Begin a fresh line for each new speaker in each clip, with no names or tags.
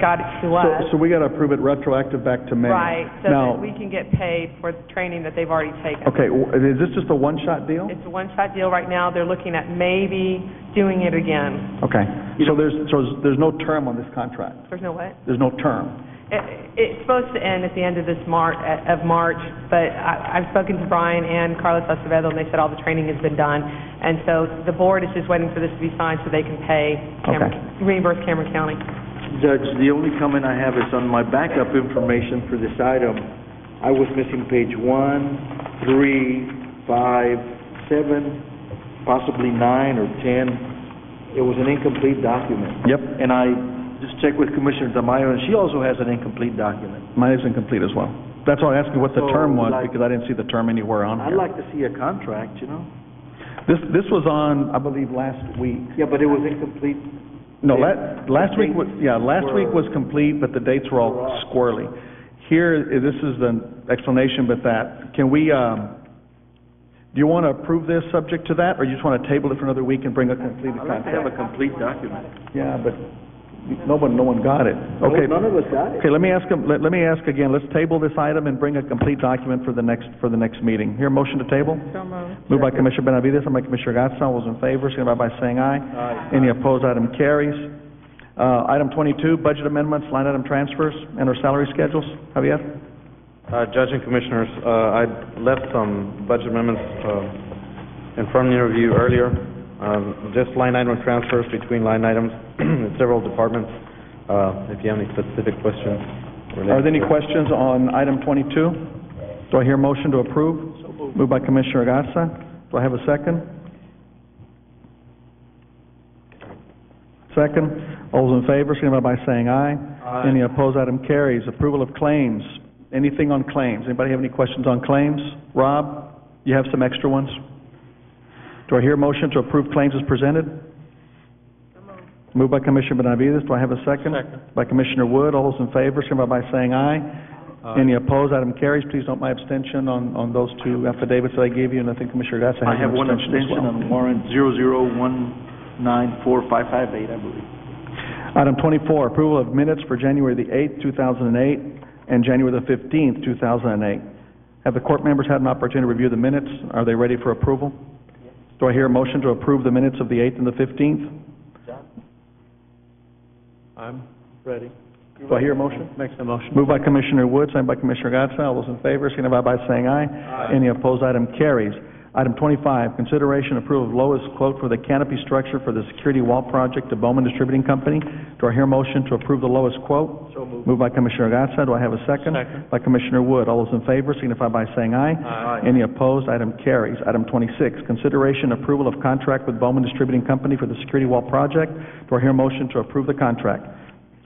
God, he was.
So, so we got to approve it retroactive back to May.
Right, so
Now-
that we can get paid for the training that they've already taken.
Okay, w- is this just a one-shot deal?
It's a one-shot deal right now. They're looking at maybe doing it again.
Okay, so there's, so there's no term on this contract?
There's no way.
There's no term?
It, it's supposed to end at the end of this Mar, of March, but I, I've spoken to Brian and Carlos Acevedo, and they said all the training has been done. And so the board is just waiting for this to be signed so they can pay Cameron, reimburse Cameron County.
Judge, the only comment I have is on my backup information for this item. I was missing page one, three, five, seven, possibly nine or 10. It was an incomplete document.
Yep.
And I just checked with Commissioner Tamayo, and she also has an incomplete document.
Mine is incomplete as well. That's why I asked you what the
So,
term was,
like-
because I didn't see the term anywhere on here.
I'd like to see a contract, you know?
This, this was on, I believe, last week.
Yeah, but it was incomplete.
No,
Yeah.
la- last week, wa- yeah, last week was complete, but the dates were all squirrely. Here, i- this is the explanation, but that, can we, um, do you want to approve this subject to that, or you just want to table it for another week and bring a completed
I'd like to
contract?
have a complete document.
Yeah, but no one, no one got it. Okay,
None of us got it.
okay, let me ask, 'em- let let me ask again, let's table this item and bring a complete document for the next, for the next meeting. Here, motion to table? Moved by Commissioner Benavides, second by Commissioner Gatsa, all those in favor, signify by saying aye.
Aye.
Any opposed, item carries. Uh, Item twenty-two, budget amendments, line item transfers, and our salary schedules. Javier?
Uh, Judge and Commissioners, uh, I left some budget amendments uh, in front of your review earlier, Um, just line item transfers between line items in several departments, Uh, if you have any specific questions. related
Are there any
to-
questions on item twenty-two? Do I hear motion to approve? Moved by Commissioner Gatsa, do I have a second? Second, all those in favor, signify by saying aye.
Aye.
Any opposed, item carries. Approval of claims, anything on claims? Anybody have any questions on claims? Rob, you have some extra ones? Do I hear motion to approve claims as presented? Moved by Commissioner Benavides, do I have a second? Second. By Commissioner Wood, all those in favor, signify by saying aye. Any opposed, item carries. Please note my abstention on, on those two affidavits that I gave you, and I think Commissioner Gatsa
I
has
have
an
one
abstention as
abstention
well.
on warrant 001945558, I believe.
Item twenty-four, approval of minutes for January the eighth, two thousand and eight, and January the fifteenth, two thousand and eight. Have the court members had an opportunity to review the minutes? Are they ready for approval? Do I hear a motion to approve the minutes of the eighth and the fifteenth?
I'm ready.
Do I hear a motion?
Make the motion.
Moved by Commissioner Wood, signed by Commissioner Gatsa. All those in favor, signify by saying aye. Any opposed, item carries. Item twenty-five, consideration approval of lowest quote for the canopy structure for the security wall project to Bowman Distributing Company. Do I hear a motion to approve the lowest quote? So moved. by Commissioner Gatsa. Do I have a second?
Second.
By Commissioner Wood. All those in favor, signify by saying aye.
Aye.
Uh, Any opposed, item carries. Item twenty-six, consideration approval of contract with Bowman Distributing Company for the security wall project. Do I hear a motion to approve the contract?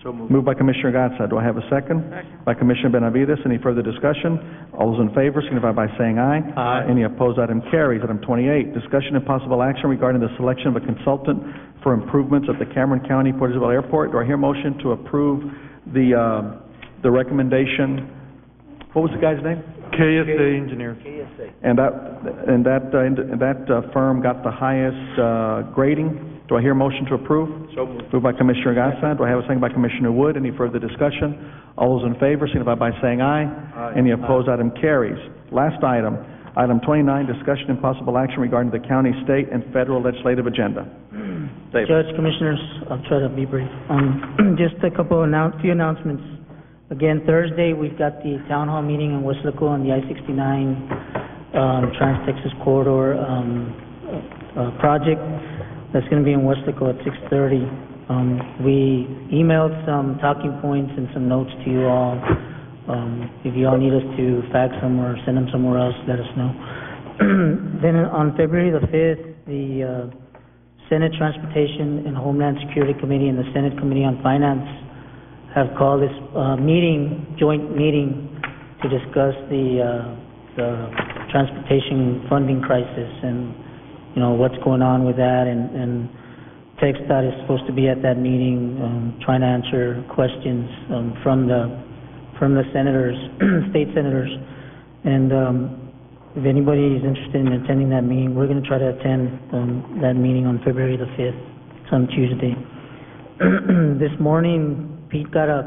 So moved.
Moved by Commissioner Gatsa. Do I have a second? By Commissioner Benavides. Any further discussion? All those in favor signify by saying aye.
Aye.
Any opposed, item carries. Item twenty-eight, discussion and possible action regarding the selection of a consultant for improvements at the Cameron County Port Isabel Airport. Do I hear motion to approve the, uh, the recommendation? What was the guy's name?
KSA Engineers.
And that, and that, uh, and that uh, firm got the highest, uh, grading. Do I hear motion to approve?
So moved.
Moved by Commissioner Gatsa. Do I have a second by Commissioner Wood? Any further discussion? All those in favor signify by saying aye. Any opposed, item carries. Last item, item twenty-nine, discussion and possible action regarding the county, state, and federal legislative agenda. David.
Judge, Commissioners, I'll try to be brief. Um, just a couple of announce, few announcements. Again, Thursday, we've got the town hall meeting in West Laco on the I-69, um, Trans-Texas Corridor, um, uh, uh, project. That's gonna be in West Laco at six-thirty. Um, we emailed some talking points and some notes to you all. Um, if you all need us to fax them or send them somewhere else, let us know. Then on February the fifth, the, uh, Senate Transportation and Homeland Security Committee and the Senate Committee on Finance have called this uh, meeting, joint meeting, to discuss the uh, the transportation funding crisis and, you know, what's going on with that. And and TechStat is supposed to be at that meeting, um, trying to answer questions um, from the from the senators, state senators. And um, if anybody is interested in attending that meeting, we're going to try to attend um, that meeting on February the 5th, some Tuesday. This morning, Pete got a